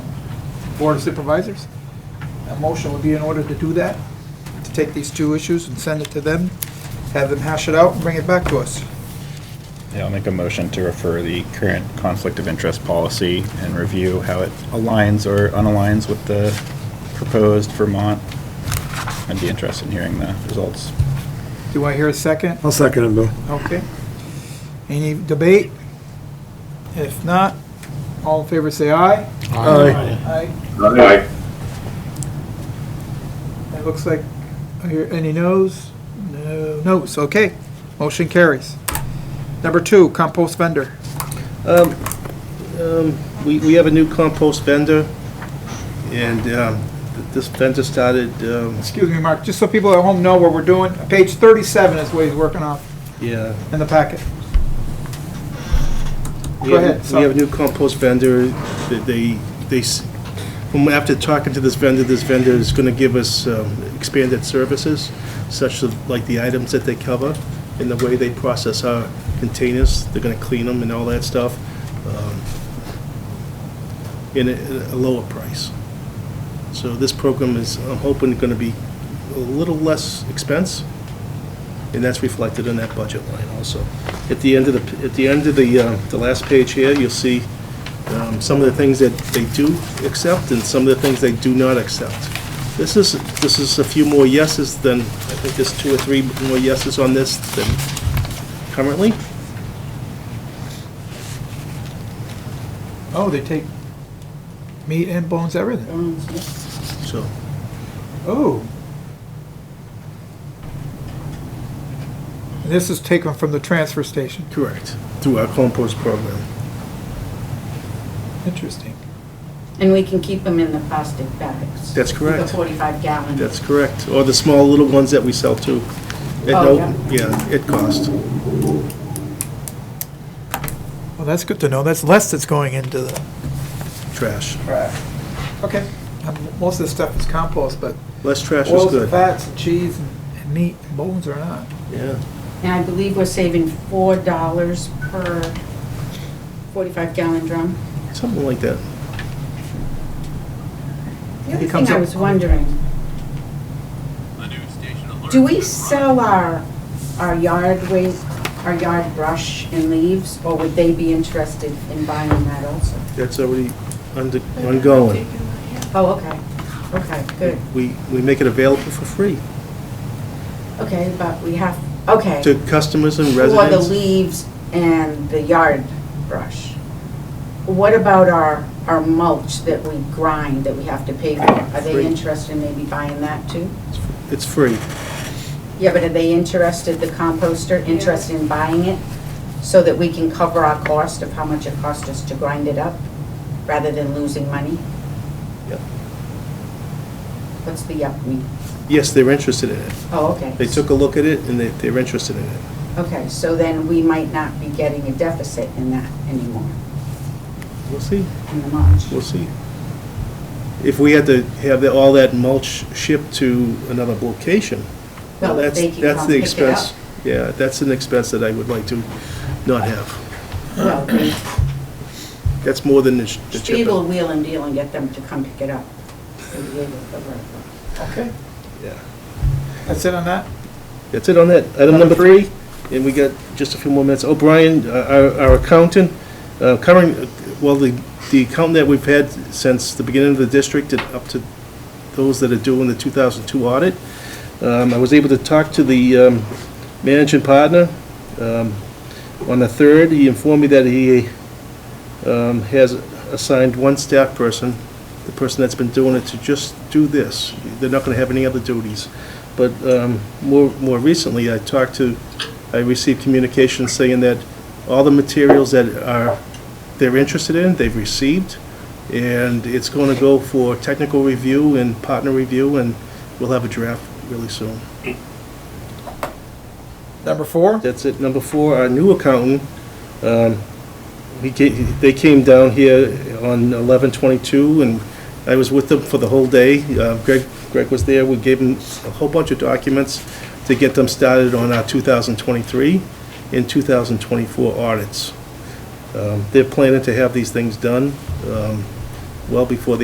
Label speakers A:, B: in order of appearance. A: Board of Supervisors. A motion would be in order to do that, to take these two issues and send it to them, have them hash it out and bring it back to us.
B: Yeah, I'll make a motion to refer the current conflict of interest policy and review how it aligns or unaligns with the proposed Vermont. I'd be interested in hearing the results.
A: Do I hear a second?
C: I'll second it, Bill.
A: Okay. Any debate? If not, all in favor say aye.
C: Aye.
A: Aye.
D: Aye.
A: It looks like, are here any noes? No, noes, okay. Motion carries. Number two, compost vendor.
E: Um, um, We we have a new compost vendor, and um, th- this vendor started, um,
A: Excuse me, Mark, just so people at home know what we're doing, page 37 is what he's working off
E: yeah.
A: in the packet.
E: We
A: Go
E: have-
A: ahead,
E: We
A: sorry.
E: have a new compost vendor, that they, they, s- from after talking to this vendor, this vendor is going to give us um, expanded services, such as like the items that they cover, and the way they process our containers, they're going to clean them and all that stuff, um, in a- at a lower price. So this program is, I'm hoping, going to be a little less expense, and that's reflected in that budget line also. At the end of the, at the end of the, uh, the last page here, you'll see um, some of the things that they do accept and some of the things they do not accept. This is, this is a few more yeses than, I think there's two or three more yeses on this than currently.
A: Oh, they take meat and bones, everything.
E: So,
A: Oh. This is taken from the transfer station.
E: correct, through our compost program.
A: Interesting.
F: And we can keep them in the plastic bags.
E: That's correct.
F: The 45 gallon.
E: That's correct. Or the small little ones that we sell too. At
F: Oh,
E: no, yeah, at cost.
A: Well, that's good to know. That's less that's going into the
E: Trash.
A: trash. Okay. Um, Most of this stuff is compost, but
E: Less trash is
A: oils and
E: good.
A: fats and cheese and- and meat and bones are not.
E: Yeah.
F: And I believe we're saving $4 per 45 gallon drum.
E: Something like that.
F: The other
A: It comes
F: thing I
A: up-
F: was wondering, do we sell our, our yard waste, our yard brush and leaves? Or would they be interested in buying that also?
E: That's already under, ongoing.
F: Oh, okay, okay, good.
E: We, we make it available for free
F: Okay, but we have, okay.
E: to customers and
F: For the
E: residents.
F: leaves and the yard brush. What about our, our mulch that we grind that we have to pay for? Are
E: Free.
F: they interested in maybe buying that too?
E: It's free.
F: Yeah, but are they interested, the composter, interested in buying it? So that we can cover our cost of how much it cost us to grind it up, rather than losing money?
E: Yep.
F: What's the yup mean?
E: Yes, they're interested in it.
F: Oh, okay.
E: They took a look at it and they, they're interested in it.
F: Okay, so then we might not be getting a deficit in that anymore,
E: We'll see,
F: in the mulch.
E: we'll see. If we had to have the- all that mulch shipped to another location,
F: Well,
E: that's,
F: they can
E: that's
F: come
E: the
F: pick it up.
E: expense. Yeah, that's an expense that I would like to not have.
F: Well, they
E: That's more than the sh- the
F: Spiegel
E: shipping.
F: wheel and deal and get them to come pick it up. They'll be able to cover it.
A: Okay.
E: Yeah.
A: That's it on that?
E: That's it on that. Item number three, and we got just a few more minutes. O'Brien, uh, our our accountant, uh, current, well, the the accountant that we've had since the beginning of the district and up to those that are doing the 2002 audit. Um, I was able to talk to the um, managing partner um, on the 3rd. He informed me that he um, has assigned one staff person, the person that's been doing it, to just do this. They're not going to have any other duties. But um, more, more recently, I talked to, I received communication saying that all the materials that are, they're interested in, they've received, and it's going to go for technical review and partner review, and we'll have a draft really soon.
A: Number four?
E: That's it. Number four, our new accountant, um, he ca- they came down here on eleven twenty-two, and I was with them for the whole day. Uh, Greg, Greg was there. We gave him a whole bunch of documents to get them started on our two thousand twenty-three and two thousand twenty-four audits. Um, They're planning to have these things done um, well before the